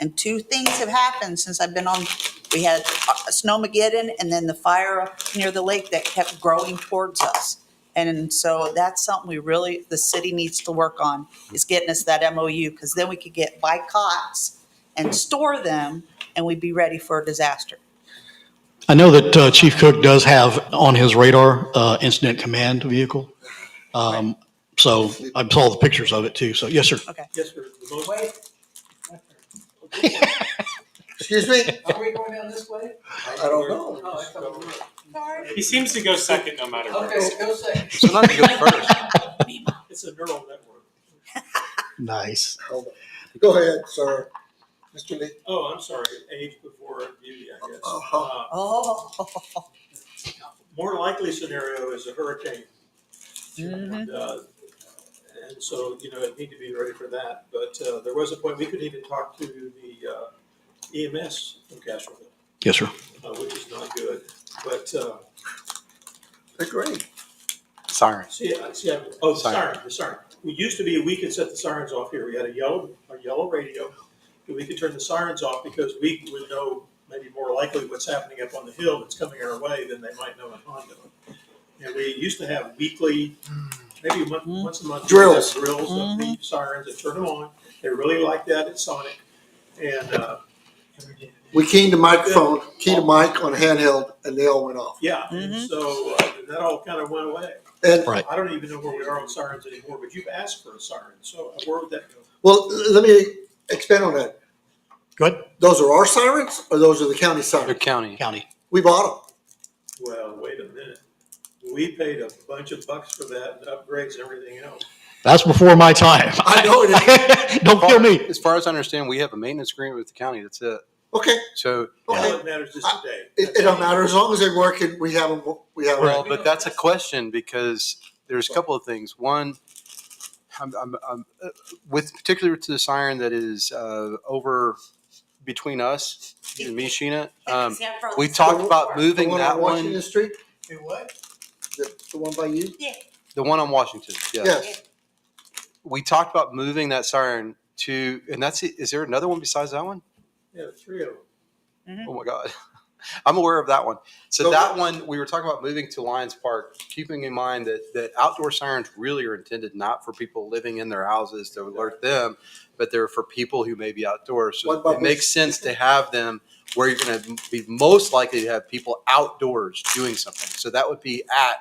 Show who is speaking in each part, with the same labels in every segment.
Speaker 1: And two things have happened since I've been on, we had a Snowmageddon and then the fire near the lake that kept growing towards us. And so that's something we really, the city needs to work on, is getting us that MOU, because then we could get by cots and store them, and we'd be ready for a disaster.
Speaker 2: I know that uh, Chief Cook does have on his radar uh, incident command vehicle. Um, So I saw the pictures of it too. So yes, sir.
Speaker 3: Yes, sir. The motion-
Speaker 4: Wait,
Speaker 5: Excuse me?
Speaker 4: are we going down this way?
Speaker 5: I don't know.
Speaker 4: No, I thought we were.
Speaker 3: He seems to go second no matter what.
Speaker 4: Okay, go second.
Speaker 6: So not to go first.
Speaker 3: It's a neural network.
Speaker 2: Nice.
Speaker 5: Hold on. Go ahead, sir. Mr. Lee.
Speaker 3: Oh, I'm sorry, age before beauty, I guess.
Speaker 5: Uh-huh.
Speaker 3: Uh,
Speaker 1: Oh.
Speaker 3: More likely scenario is a hurricane.
Speaker 4: Mm-hmm.
Speaker 7: Mm-hmm.
Speaker 1: Mhm.
Speaker 3: And, uh, And so, you know, need to be ready for that. But uh, there was a point, we could even talk to the uh, EMS from Castroville,
Speaker 2: Yes, sir.
Speaker 3: uh, which is not good. But uh,
Speaker 5: They're great.
Speaker 6: Sorry.
Speaker 3: see, I- see, I- oh, the
Speaker 6: Siren.
Speaker 3: siren, the siren. We used to be, we could set the sirens off here. We had a yellow, a yellow radio. And we could turn the sirens off because we would know maybe more likely what's happening up on the hill that's coming our way than they might know in Hondo. And we used to have weekly, maybe one- once a month. we'd have
Speaker 5: Drills.
Speaker 3: Drills of the sirens and turn them on. They really liked that at Sonic. And, uh,
Speaker 5: We keyed the microphone, keyed the mic on handheld, and they all went off.
Speaker 3: yeah, and
Speaker 1: Mhm.
Speaker 3: so uh, that all kind of went away.
Speaker 5: And,
Speaker 2: Right.
Speaker 3: I don't even know where we are on sirens anymore, but you've asked for a siren, so where would that go?
Speaker 5: well, let me expand on that.
Speaker 2: Go ahead.
Speaker 5: Those are our sirens, or those are the county
Speaker 6: Your
Speaker 5: sirens?
Speaker 6: county.
Speaker 2: County.
Speaker 5: We bought
Speaker 3: Well, wait a minute. We paid a bunch of bucks for that and upgrades and everything else.
Speaker 2: That's before my time.
Speaker 5: I know it
Speaker 2: Don't kill me.
Speaker 6: As far as I understand, we have a maintenance agreement with the county. That's it.
Speaker 5: them. Okay,
Speaker 6: So,
Speaker 3: All
Speaker 5: okay.
Speaker 3: that matters is today.
Speaker 5: It, it don't matter. As long as they're working, we have them, we have
Speaker 6: well,
Speaker 5: them.
Speaker 6: but that's a question because there's a couple of things. One, I'm, I'm, I'm, uh, with particularly to the siren that is uh, over between us, you and me, Sheena. Um, we talked about moving
Speaker 5: The one
Speaker 6: that
Speaker 5: on
Speaker 6: one,
Speaker 5: Washington Street,
Speaker 3: Hey, what?
Speaker 5: the, the one by you?
Speaker 6: the one on Washington. Yes.
Speaker 5: Yes.
Speaker 6: We talked about moving that siren to, and that's it. Is there another one besides that one?
Speaker 3: Yeah, three of them.
Speaker 6: Oh my God. I'm aware of that one. So
Speaker 5: So-
Speaker 6: that one, we were talking about moving to Lions Park, keeping in mind that, that outdoor sirens really are intended not for people living in their houses to alert them, but they're for people who may be outdoors.
Speaker 5: What
Speaker 6: So
Speaker 5: about
Speaker 6: it makes sense to have them where you're going to be most likely to have people outdoors doing something. So that would be at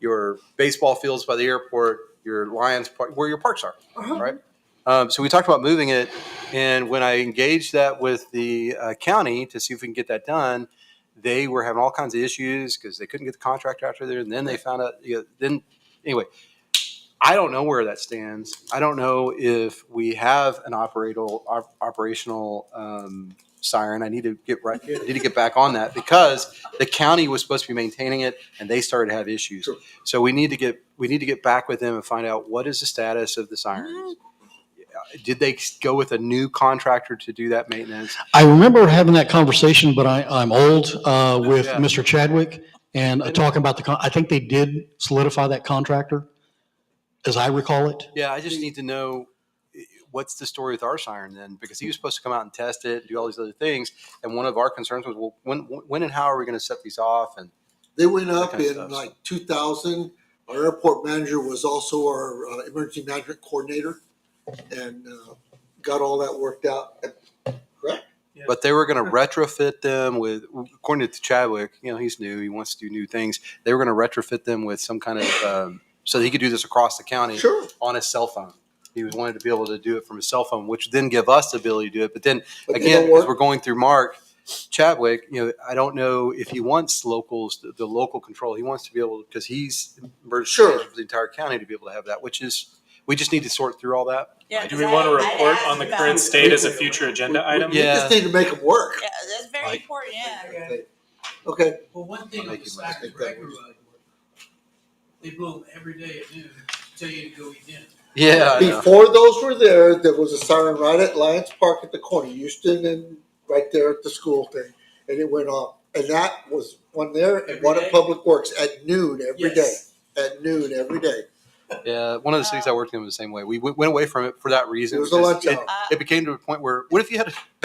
Speaker 6: your baseball fields by the airport, your Lions Park, where your parks are, right? Um, so we talked about moving it, and when I engaged that with the uh, county to see if we can get that done, they were having all kinds of issues because they couldn't get the contractor out there. And then they found out. You know, then anyway, I don't know where that stands. I don't know if we have an operational op- operational um, siren. I need to get right. I need to get back on that because the county was supposed to be maintaining it, and they started to have issues.
Speaker 5: Sure.
Speaker 6: So we need to get we need to get back with them and find out what is the status of the sirens. Did they go with a new contractor to do that maintenance?
Speaker 2: I remember having that conversation, but I, I'm old uh, with
Speaker 6: Yeah.
Speaker 2: Mr. Chadwick and uh, talking about the, con- I think they did solidify that contractor, as I recall it.
Speaker 6: Yeah, I just need to know eh, what's the story with our siren then, because he was supposed to come out and test it, do all these other things, and one of our concerns was, well, when, when and how are we going to set these off? And
Speaker 5: They went up
Speaker 6: Okay,
Speaker 5: in
Speaker 6: so-
Speaker 5: like two thousand. Our airport manager was also our uh, emergency management coordinator and uh, got all that worked out.
Speaker 6: but they were going to retrofit them with, according to Chadwick, you know, he's new, he wants to do new things. They were going to retrofit them with some kind of um, so that he could do this across the county
Speaker 5: Sure.
Speaker 6: on his cell phone. He was wanted to be able to do it from his cell phone, which then give us the ability to do it. But then
Speaker 5: But they
Speaker 6: again,
Speaker 5: don't
Speaker 6: because
Speaker 5: work.
Speaker 6: we're going through Mark Chadwick, you know, I don't know if he wants locals, the, the local control. He wants to be able, because he's emergency
Speaker 5: Sure.
Speaker 6: manager for the entire county to be able to have that, which is, we just need to sort through all that.
Speaker 7: Do we want to report on the current state as a future agenda
Speaker 5: We- we-
Speaker 7: item?
Speaker 5: We just need to make them work.
Speaker 1: Yeah, that's very important, yeah.
Speaker 5: Okay,
Speaker 4: Well, one thing on the side of the record, by the way, they blow them every day at noon, tell you to go eat dinner.
Speaker 6: Yeah. I know.
Speaker 5: before those were there, there was a siren right at Lions Park at the corner, Houston and right there at the school thing. And it went off. And that was one there and
Speaker 4: Every
Speaker 5: one
Speaker 4: day?
Speaker 5: at Public Works at noon every day.
Speaker 4: Yes.
Speaker 5: At noon every day.
Speaker 6: Yeah. One of the cities I worked in was the same way. We went went away from it for that reason.
Speaker 5: It was a
Speaker 6: because
Speaker 1: Uh,
Speaker 5: lunch hour.
Speaker 6: It became to a point where, what if you had a